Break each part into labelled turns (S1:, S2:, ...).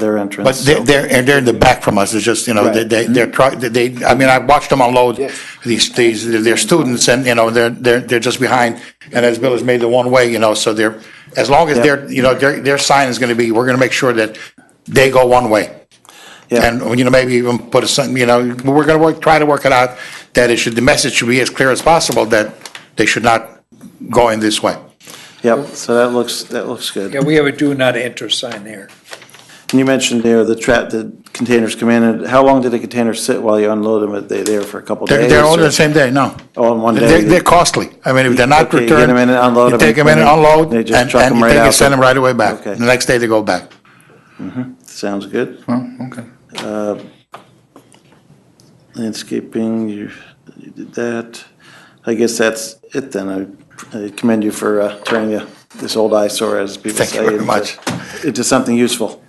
S1: their
S2: But
S1: entrance.
S2: they're, they're, and they're in the back from us, it's just, you know, they,
S1: Right.
S2: they- they're, try- they, I mean, I watched them unload
S1: Yes.
S2: these, these, their students, and, you know, they're, they're, they're just behind, and as Bill has made the one way, you know, so they're, as long as
S1: Yep.
S2: their, you know, their, their sign is gonna be, we're gonna make sure that they go one way.
S1: Yeah.
S2: And, you know, maybe even put a, sign, you know, we're gonna work, try to work it out, that it should, the message should be as clear as possible that they should not go in this way.
S1: Yep, so that looks, that looks good.
S3: Yeah, we have a do not enter sign there.
S1: And you mentioned there the trap, the containers come in, and how long did the container sit while you unload them? Are they there for a couple
S2: They're,
S1: days?
S2: they're all
S1: or-
S2: the same day, no.
S1: All in one
S2: They're,
S1: day?
S2: they're costly. I mean, if they're not
S1: Okay, you
S2: returned.
S1: get 'em in and unload 'em
S2: You take them in
S1: and
S2: and unload,
S1: they
S2: and,
S1: just truck 'em
S2: and you
S1: right
S2: take
S1: out
S2: and send
S1: the-
S2: them right away back.
S1: Okay.
S2: The next day they go back.
S1: Sounds good. Uh,
S2: okay.
S1: Landscaping, you, you did that. I guess that's it then. I I commend you for uh, turning the- this old eyesore, as people
S2: Thank
S1: say.
S2: you very
S1: into-
S2: much.
S1: Into something useful.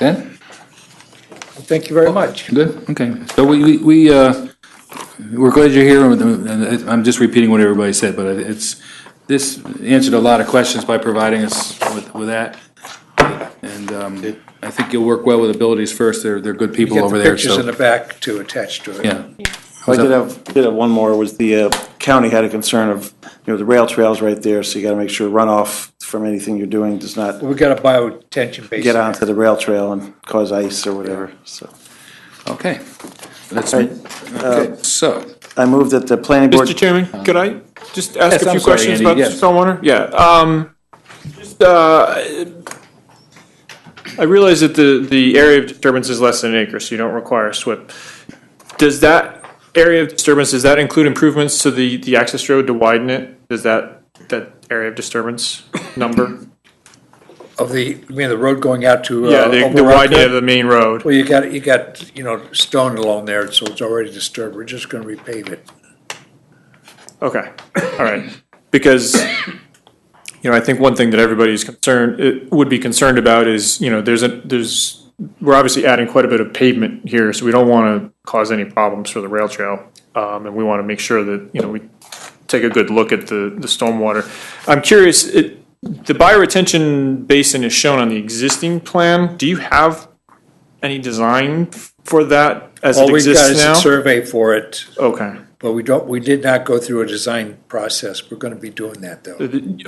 S4: Ben?
S3: Well, Thank you very much.
S4: Good, okay. So we, we, we, uh, we're glad you're here, and and I'm just repeating what everybody said, but it's, this answered a lot of questions by providing us with, with that. And, um, I think you'll work well with Abilities First, they're, they're good people
S3: Get
S4: over
S3: the
S4: there,
S3: pictures in
S4: so,
S3: the back to attach to it.
S4: yeah.
S1: I did have, did have one more, was the uh, county had a concern of, you know, the rail trail's right there, so you gotta make sure runoff from anything you're doing does not
S3: We've got a biotension basin.
S1: get
S3: there.
S1: onto the rail trail and cause ice or whatever, so.
S4: Okay. Let's,
S1: Right.
S4: okay, so.
S1: I move that the planning board.
S5: Mr. Chairman, could I just ask
S4: Yes,
S5: a
S4: I'm sorry,
S5: few questions
S4: Andy,
S5: about the
S4: yes.
S5: stormwater? Yeah, um, just, uh, I realize that the, the area of disturbance is less than an acre, so you don't require a SWIP. Does that area of disturbance, does that include improvements to the, the access road to widen it? Does that, that area of disturbance number?
S3: Of the, I mean, the road going out to. uh,
S5: Yeah, the, the
S3: Old Rock
S5: widening
S3: Road?
S5: of the main road.
S3: Well, you got, you got, you know, stone along there, so it's already disturbed. We're just gonna repave it.
S5: Okay, all right, because, you know, I think one thing that everybody's concerned, it would be concerned about is, you know, there's a, there's, we're obviously adding quite a bit of pavement here, so we don't want to cause any problems for the rail trail. Um, and we want to make sure that, you know, we take a good look at the, the stormwater. I'm curious, it, the bioretention basin is shown on the existing plan. Do you have any design for that as
S3: All
S5: it
S3: we've got
S5: exists
S3: is a
S5: now?
S3: survey for it,
S5: Okay,
S3: but we don't, we did not go through a design process. We're gonna be doing that, though.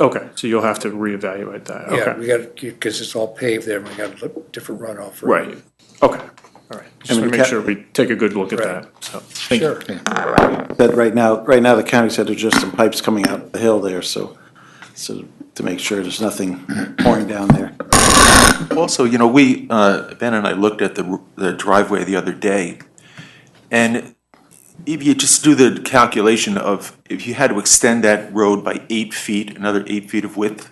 S5: okay, so you'll have to reevaluate that, okay.
S3: Yeah, we got, because it's all paved there, and we got a different runoff. for it.
S5: Right, okay, all right.
S1: mean,
S5: Just want to
S1: ca-
S5: make sure we take a good look at
S3: Right.
S5: that, so, thank you.
S3: Sure.
S1: That right now, right now, the county said there's just some pipes coming out the hill there, so, so to make sure there's nothing pouring down there.
S6: Also, you know, we, uh, Ben and I looked at the the driveway the other day, and if you just do the calculation of, if you had to extend that road by eight feet, another eight feet of width,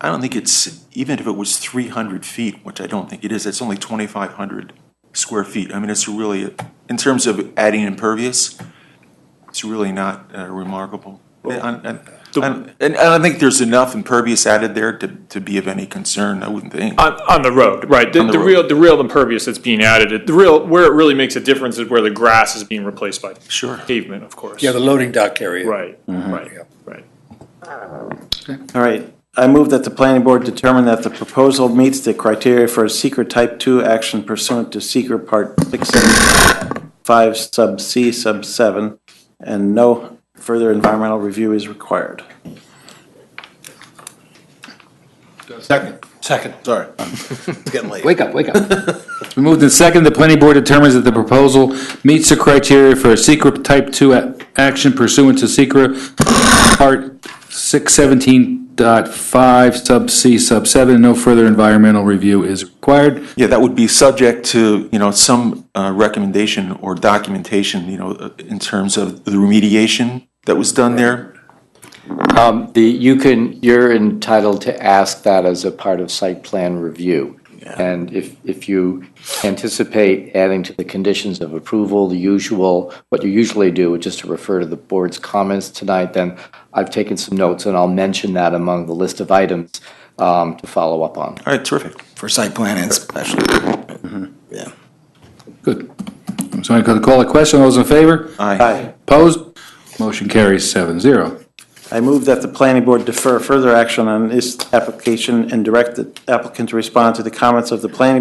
S6: I don't think it's, even if it was 300 feet, which I don't think it is, it's only 2,500 square feet. I mean, it's really, in terms of adding impervious, it's really not uh, remarkable. And, and- and- and I think there's enough impervious added there to, to be of any concern, I wouldn't think.
S5: On, on the road, right, the,
S6: On the
S5: the
S6: road.
S5: real, the real impervious that's being added, it- the real, where it really makes a difference is where the grass is being replaced by
S6: Sure.
S5: pavement, of course.
S3: Yeah, the loading dock area.
S5: Right, right, right.
S1: All right, I move that the planning board determine that the proposal meets the criteria for a secret type two action pursuant to secret part six seven five sub C sub seven, and no further environmental review is required.
S2: Second.
S6: Second. Sorry. It's getting late.
S4: Wake up, wake up. We moved in second, the planning board determines that the proposal meets the criteria for a secret type two a- action pursuant to secret part six seventeen dot five sub C sub seven, no further environmental review is required.
S6: Yeah, that would be subject to, you know, some uh, recommendation or documentation, you know, uh, in terms of the remediation that was done there.
S7: The, you can, you're entitled to ask that as a part of site plan review. And if, if you anticipate adding to the conditions of approval, the usual, what you usually do, which is to refer to the board's comments tonight, then I've taken some notes and I'll mention that among the list of items um, to follow up on.
S6: All right, terrific.
S8: for site plan and special. Yeah.
S4: Good. So I'm going to call a question. All those in favor?
S6: Aye.
S1: Aye.
S4: Opposed? Motion carries seven zero.
S1: I move that the planning board defer further action on this application and direct the applicant to respond to the comments of the planning